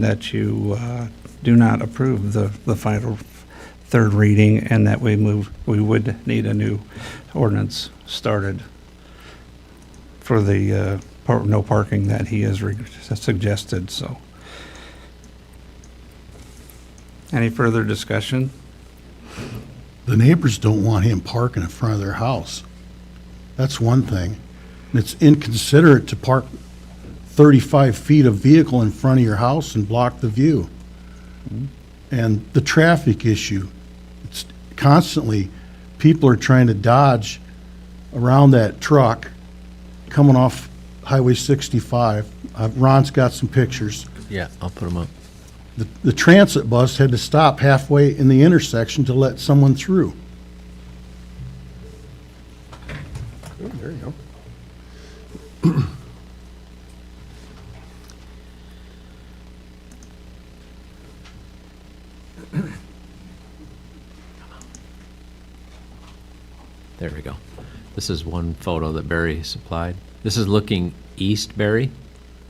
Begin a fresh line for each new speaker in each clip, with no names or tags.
that you uh, do not approve the, the final third reading and that we move, we would need a new ordinance started for the uh, par- no parking that he has re- suggested, so. Any further discussion?
The neighbors don't want him parking in front of their house. That's one thing. And it's inconsiderate to park 35 feet of vehicle in front of your house and block the view. And the traffic issue, it's constantly, people are trying to dodge around that truck coming off Highway 65. Uh, Ron's got some pictures.
Yeah, I'll put them up.
The- The transit bus had to stop halfway in the intersection to let someone through.
There you go.
There we go. This is one photo that Barry supplied. This is looking east, Barry,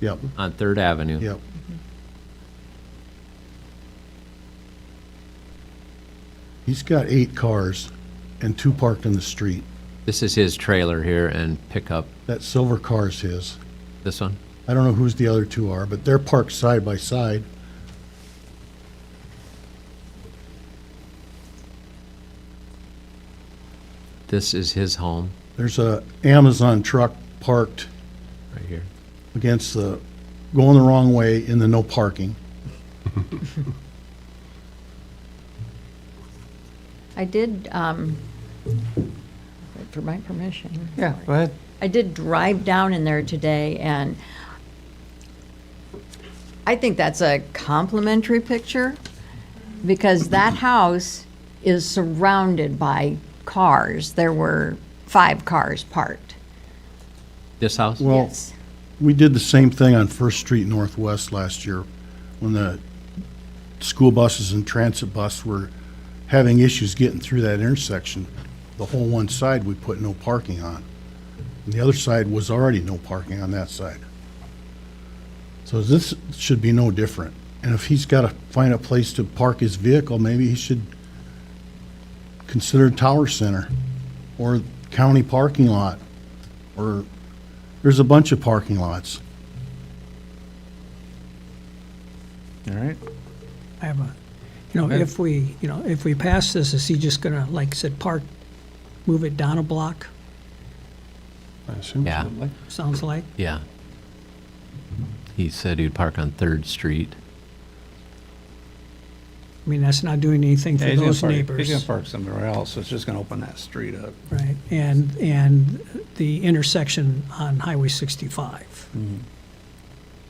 Yep,
on Third Avenue.
yep. He's got eight cars and two parked in the street.
This is his trailer here and pickup.
That silver car is his.
This one?
I don't know whose the other two are, but they're parked side by side.
This is his home
There's a Amazon truck parked
right here.
against the, going the wrong way in the no parking.
I did, um, for my permission.
go ahead.
I did drive down in there today, and I think that's a complimentary picture, because that house is surrounded by cars. There were five cars parked.
This house?
Well, We did the same thing on First Street Northwest last year, when the school buses and transit bus were having issues getting through that intersection. The whole one side, we put no parking on. And the other side was already no parking on that side. So this should be no different. And if he's got to find a place to park his vehicle, maybe he should consider Tower Center, or county parking lot, or there's a bunch of parking lots.
All right.
I have a, you know, if we, you know, if we pass this, is he just gonna, like I said, park, move it down a block,
I assume.
Yeah,
sounds like?
yeah. He said he'd park on Third Street.
I mean, that's not doing anything
Yeah,
for
he's gonna
those
park- He's gonna
neighbors.
park somewhere else, it's just gonna open that street up.
Right, and, and the intersection on Highway sixty-five,
Mm-hmm.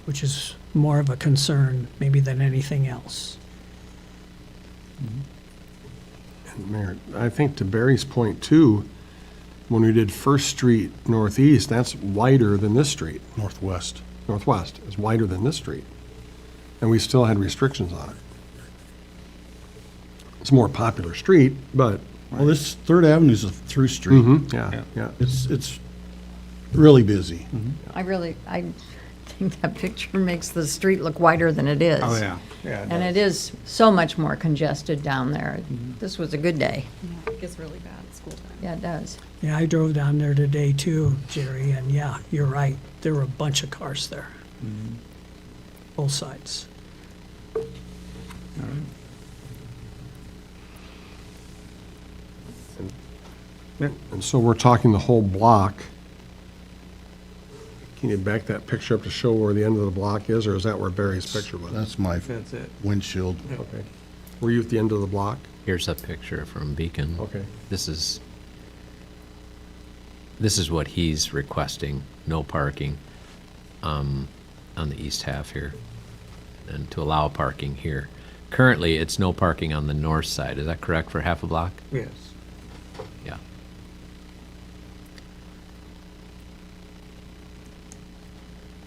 which is more of a concern maybe than anything else.
Mayor, I think to Barry's point too, when we did First Street Northeast, that's wider than this street.
Northwest.
Northwest is wider than this street. And we still had restrictions on it. It's a more popular street, but,
Well, this Third Avenue's a through street.
mhm, yeah, yeah.
It's, it's really busy.
I really, I think that picture makes the street look wider than it
Oh,
is.
Oh, Yeah.
And it is so much more congested down there. This was a good day.
It gets really bad at school time.
Yeah, it does.
Yeah, I drove down there today too, Jerry, and yeah, you're right, there were a bunch of cars there.
Mm-hmm.
Both sides.
And so we're talking the whole block. Can you back that picture up to show where the end of the block is, or is that where Barry's picture was?
That's my
That's it.
windshield.
Okay. Were you at the end of the block?
Here's a picture from Beacon.
Okay.
This is, this is what he's requesting, no parking, um, on the east half here, and to allow parking here. Currently, it's no parking on the north side, is that correct, for half a block?
Yes.
Yeah.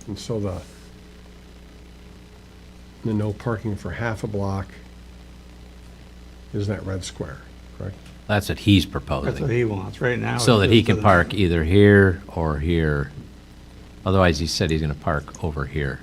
And so the, the no parking for half a block is that red square, correct?
That's what he's
That's what
proposing,
he wants, right now.
so
it's
that he
just to
can
the-
park either here or here. Otherwise, he said he's gonna park over here.